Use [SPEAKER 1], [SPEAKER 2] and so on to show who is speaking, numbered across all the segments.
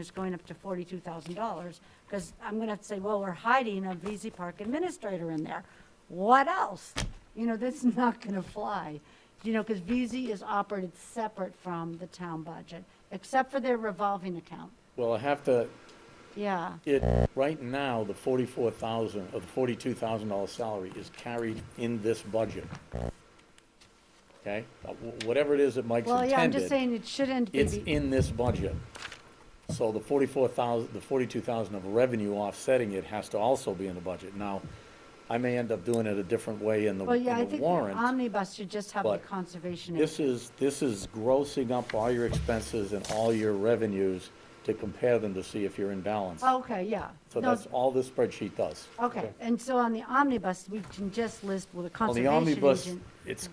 [SPEAKER 1] is going up to forty-two thousand dollars, because I'm gonna have to say, well, we're hiding a VZ Park administrator in there. What else? You know, that's not gonna fly, you know, because VZ is operated separate from the town budget, except for their revolving account,
[SPEAKER 2] Well, I have to,
[SPEAKER 1] yeah.
[SPEAKER 2] it, right now, the forty-four thousand, or the forty-two thousand dollar salary is carried in this budget. Okay, Uh, wh- whatever it is that Mike's
[SPEAKER 1] Well, yeah, I'm just
[SPEAKER 2] intended,
[SPEAKER 1] saying it shouldn't be.
[SPEAKER 2] it's in this budget. So the forty-four thousand, the forty-two thousand of revenue offsetting it has to also be in the budget. Now, I may end up doing it a different way in the,
[SPEAKER 1] Well,
[SPEAKER 2] in
[SPEAKER 1] yeah, I
[SPEAKER 2] the
[SPEAKER 1] think the
[SPEAKER 2] warrant.
[SPEAKER 1] omnibus should just have the
[SPEAKER 2] but
[SPEAKER 1] conservation. in-
[SPEAKER 2] This is, this is grossing up all your expenses and all your revenues to compare them to see if you're in balance.
[SPEAKER 1] Okay, yeah.
[SPEAKER 2] So
[SPEAKER 1] No,
[SPEAKER 2] that's all this spreadsheet does.
[SPEAKER 1] Okay, and so on the omnibus, we can just list with a
[SPEAKER 2] On the
[SPEAKER 1] conservation agent.
[SPEAKER 2] omnibus, it's,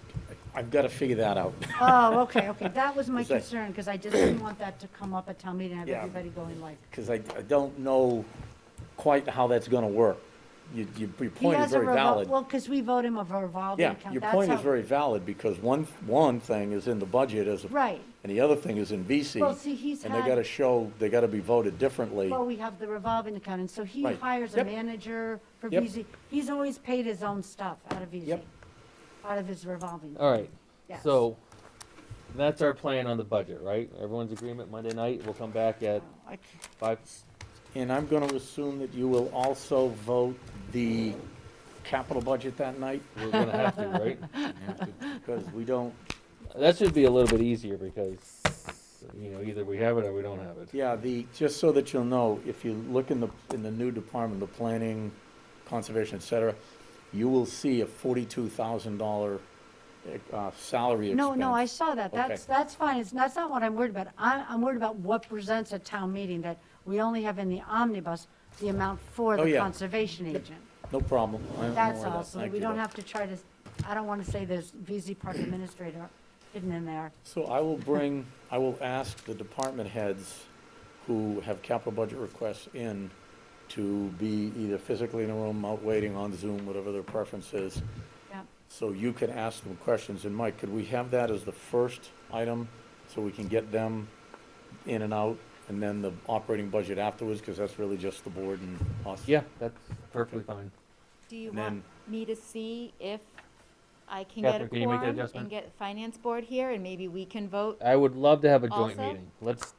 [SPEAKER 2] I've got to figure that out.
[SPEAKER 1] Oh, okay, okay, that was my
[SPEAKER 2] Is that-
[SPEAKER 1] concern, because I just didn't want that to come up at town meeting, and have
[SPEAKER 2] Yeah.
[SPEAKER 1] everybody going like,
[SPEAKER 2] Because I, I don't know quite how that's going to work. You, you,
[SPEAKER 1] he
[SPEAKER 2] your point is
[SPEAKER 1] has a
[SPEAKER 2] very
[SPEAKER 1] revol,
[SPEAKER 2] valid.
[SPEAKER 1] well, because we vote him a revolving
[SPEAKER 2] Yeah,
[SPEAKER 1] account.
[SPEAKER 2] your
[SPEAKER 1] That's
[SPEAKER 2] point is
[SPEAKER 1] how-
[SPEAKER 2] very valid because one, one thing is in the budget as, a-
[SPEAKER 1] Right,
[SPEAKER 2] and the other thing is in VC.
[SPEAKER 1] Well, see, he's
[SPEAKER 2] And
[SPEAKER 1] had-
[SPEAKER 2] they got to show, they got to be voted differently.
[SPEAKER 1] well, we have the revolving account, and so he
[SPEAKER 2] Right.
[SPEAKER 1] hires a
[SPEAKER 2] Yep.
[SPEAKER 1] manager for
[SPEAKER 2] Yep.
[SPEAKER 1] VZ, he's always paid his own stuff out of VZ.
[SPEAKER 2] Yep.
[SPEAKER 1] Out of his revolving.
[SPEAKER 3] All right,
[SPEAKER 1] Yes.
[SPEAKER 3] so that's our plan on the budget, right? Everyone's agreement Monday night, we'll come back at
[SPEAKER 1] I can't-
[SPEAKER 3] five,
[SPEAKER 2] And I'm going to assume that you will also vote the capital budget that night
[SPEAKER 3] we're gonna have to, right?
[SPEAKER 2] because we don't,
[SPEAKER 3] That should be a little bit easier because, you know, either we have it or we don't have it.
[SPEAKER 2] Yeah, the, just so that you'll know, if you look in the, in the new department, the planning, conservation, et cetera, you will see a forty-two thousand dollar, uh, salary expense.
[SPEAKER 1] No, no, I saw that,
[SPEAKER 2] Okay.
[SPEAKER 1] that's, that's fine, it's, that's not what I'm worried about, I, I'm worried about what presents at town meeting, that we only have in the omnibus the amount for
[SPEAKER 2] Oh,
[SPEAKER 1] the
[SPEAKER 2] yeah.
[SPEAKER 1] conservation agent.
[SPEAKER 2] No problem. I don't
[SPEAKER 1] That's
[SPEAKER 2] worry about
[SPEAKER 1] all,
[SPEAKER 2] it.
[SPEAKER 1] so
[SPEAKER 2] Thank
[SPEAKER 1] we
[SPEAKER 2] you,
[SPEAKER 1] don't
[SPEAKER 2] though.
[SPEAKER 1] have to try to, I don't want to say there's VZ Park Administrator hidden in there.
[SPEAKER 2] So I will bring, I will ask the department heads who have capital budget requests in to be either physically in the room, out waiting on Zoom, whatever their preference is,
[SPEAKER 1] Yep.
[SPEAKER 2] So you can ask them questions, and Mike, could we have that as the first item, so we can get them in and out, and then the operating budget afterwards, because that's really just the board and us?
[SPEAKER 3] Yeah, that's perfectly fine.
[SPEAKER 4] Do you
[SPEAKER 2] And
[SPEAKER 4] want me to see if I can get a
[SPEAKER 3] Catherine, can you make that
[SPEAKER 4] quorum
[SPEAKER 3] adjustment?
[SPEAKER 4] and get finance board here and maybe we can vote
[SPEAKER 3] I would love to have a joint
[SPEAKER 4] Also-
[SPEAKER 3] meeting. Let's,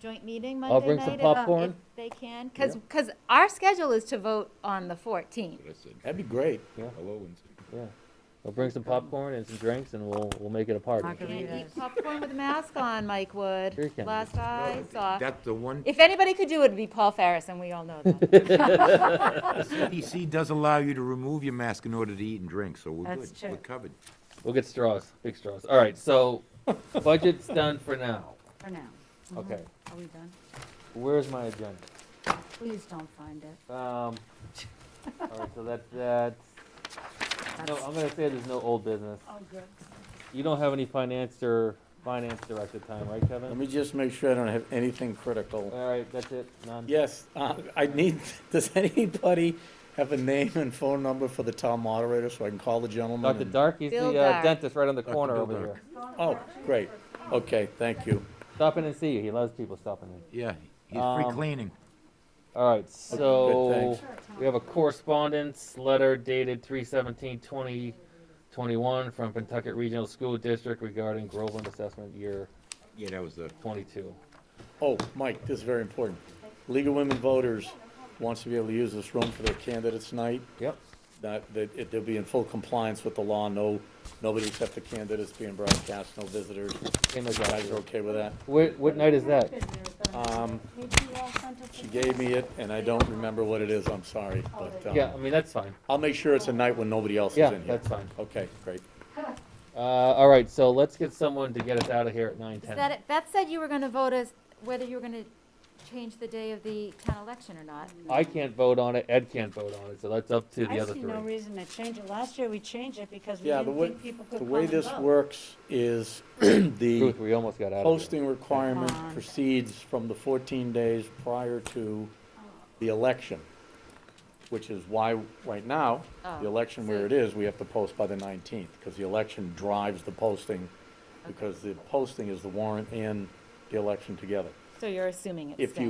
[SPEAKER 4] joint meeting
[SPEAKER 3] I'll
[SPEAKER 4] Monday
[SPEAKER 3] bring some
[SPEAKER 4] night if, uh,
[SPEAKER 3] popcorn.
[SPEAKER 4] if they can? Cause, 'cause our schedule is to vote on the fourteenth.
[SPEAKER 5] I said,
[SPEAKER 2] That'd be great.
[SPEAKER 5] hello, and said,
[SPEAKER 3] Yeah, I'll bring some popcorn and some drinks and we'll, we'll make it a party.
[SPEAKER 1] Margarita.
[SPEAKER 4] Can't
[SPEAKER 1] Yes.
[SPEAKER 4] eat popcorn with a mask on, Mike Wood.
[SPEAKER 3] Sure can.
[SPEAKER 4] Last I saw.
[SPEAKER 5] That's the one,
[SPEAKER 4] If anybody could do it, it'd be Paul Ferris and we all know that.
[SPEAKER 5] CDC does allow you to remove your mask in order to eat and drink, so we're
[SPEAKER 1] That's
[SPEAKER 5] good, we're
[SPEAKER 1] true.
[SPEAKER 5] covered.
[SPEAKER 3] We'll get straws, big straws. All right, so budget's done for now.
[SPEAKER 1] for now. Mhm.
[SPEAKER 3] Okay,
[SPEAKER 1] Are we done?
[SPEAKER 3] where's my agenda?
[SPEAKER 1] Please don't find it.
[SPEAKER 3] Um, all right, so that's, that's, no, I'm gonna say there's no old business.
[SPEAKER 1] Oh, good.
[SPEAKER 3] You don't have any finance or finance director time, right,
[SPEAKER 2] Let
[SPEAKER 3] Kevin?
[SPEAKER 2] me just make sure I don't have anything critical.
[SPEAKER 3] All right, that's it, none.
[SPEAKER 2] Yes, uh, I need, does anybody have a name and phone number for the town moderator, so I can call the gentleman?
[SPEAKER 3] Dr.
[SPEAKER 2] and-
[SPEAKER 3] Dark, he's
[SPEAKER 4] Bill
[SPEAKER 3] the uh,
[SPEAKER 4] Dark.
[SPEAKER 3] dentist right on the corner
[SPEAKER 5] Bill
[SPEAKER 3] over
[SPEAKER 5] Dark.
[SPEAKER 3] here.
[SPEAKER 2] Oh, great, okay, thank you.
[SPEAKER 3] Stop in and see you, he loves people stopping in.
[SPEAKER 5] Yeah, he's free
[SPEAKER 3] Um,
[SPEAKER 5] cleaning.
[SPEAKER 3] All right, so
[SPEAKER 2] thanks.
[SPEAKER 3] we have a correspondence letter dated 3 2021 from Pentucket Regional School District regarding Groveland Assessment Year
[SPEAKER 5] Yeah, that was the,
[SPEAKER 3] 22.
[SPEAKER 2] Oh, Mike, this is very important. League of Women Voters wants to be able to use this room for their candidates' night.
[SPEAKER 3] Yep.
[SPEAKER 2] That, that, it- they'll be in full compliance with the law, no, nobody except the candidates being broadcast, no visitors.
[SPEAKER 3] Same as
[SPEAKER 2] You guys
[SPEAKER 3] last
[SPEAKER 2] are
[SPEAKER 3] year.
[SPEAKER 2] okay with that?
[SPEAKER 3] What, what night is that?
[SPEAKER 2] Um,
[SPEAKER 1] Maybe you all sent us
[SPEAKER 2] She
[SPEAKER 1] a-
[SPEAKER 2] gave me it, and I don't remember what it is, I'm sorry, but,
[SPEAKER 3] Yeah, I
[SPEAKER 2] um,
[SPEAKER 3] mean, that's fine.
[SPEAKER 2] I'll make sure it's a night when nobody else is
[SPEAKER 3] Yeah,
[SPEAKER 2] in here.
[SPEAKER 3] that's fine.
[SPEAKER 2] Okay, great.
[SPEAKER 3] Uh, all right, so let's get someone to get us out of here at
[SPEAKER 4] Is that
[SPEAKER 3] 9:10.
[SPEAKER 4] it? Beth said you were gonna vote as, whether you were gonna change the day of the town election or not.
[SPEAKER 3] I can't vote on it, Ed can't vote on it, so that's up to the
[SPEAKER 1] I
[SPEAKER 3] other
[SPEAKER 1] see
[SPEAKER 3] three.
[SPEAKER 1] no reason to change it. Last year, we changed it because we
[SPEAKER 2] Yeah, the
[SPEAKER 1] didn't
[SPEAKER 2] way,
[SPEAKER 1] think people could
[SPEAKER 2] the
[SPEAKER 1] come
[SPEAKER 2] way
[SPEAKER 1] and
[SPEAKER 2] this
[SPEAKER 1] vote.
[SPEAKER 2] works is the
[SPEAKER 3] Ruth, we almost got out of here.
[SPEAKER 2] posting requirement
[SPEAKER 1] Come on.
[SPEAKER 2] proceeds from the 14 days prior to the election, which is why, right now,
[SPEAKER 4] Oh,
[SPEAKER 2] the election where it is, we have to post by the 19th, because the election drives the posting, because the posting is the warrant and the election together.
[SPEAKER 4] So you're assuming it's
[SPEAKER 2] If you
[SPEAKER 4] staying.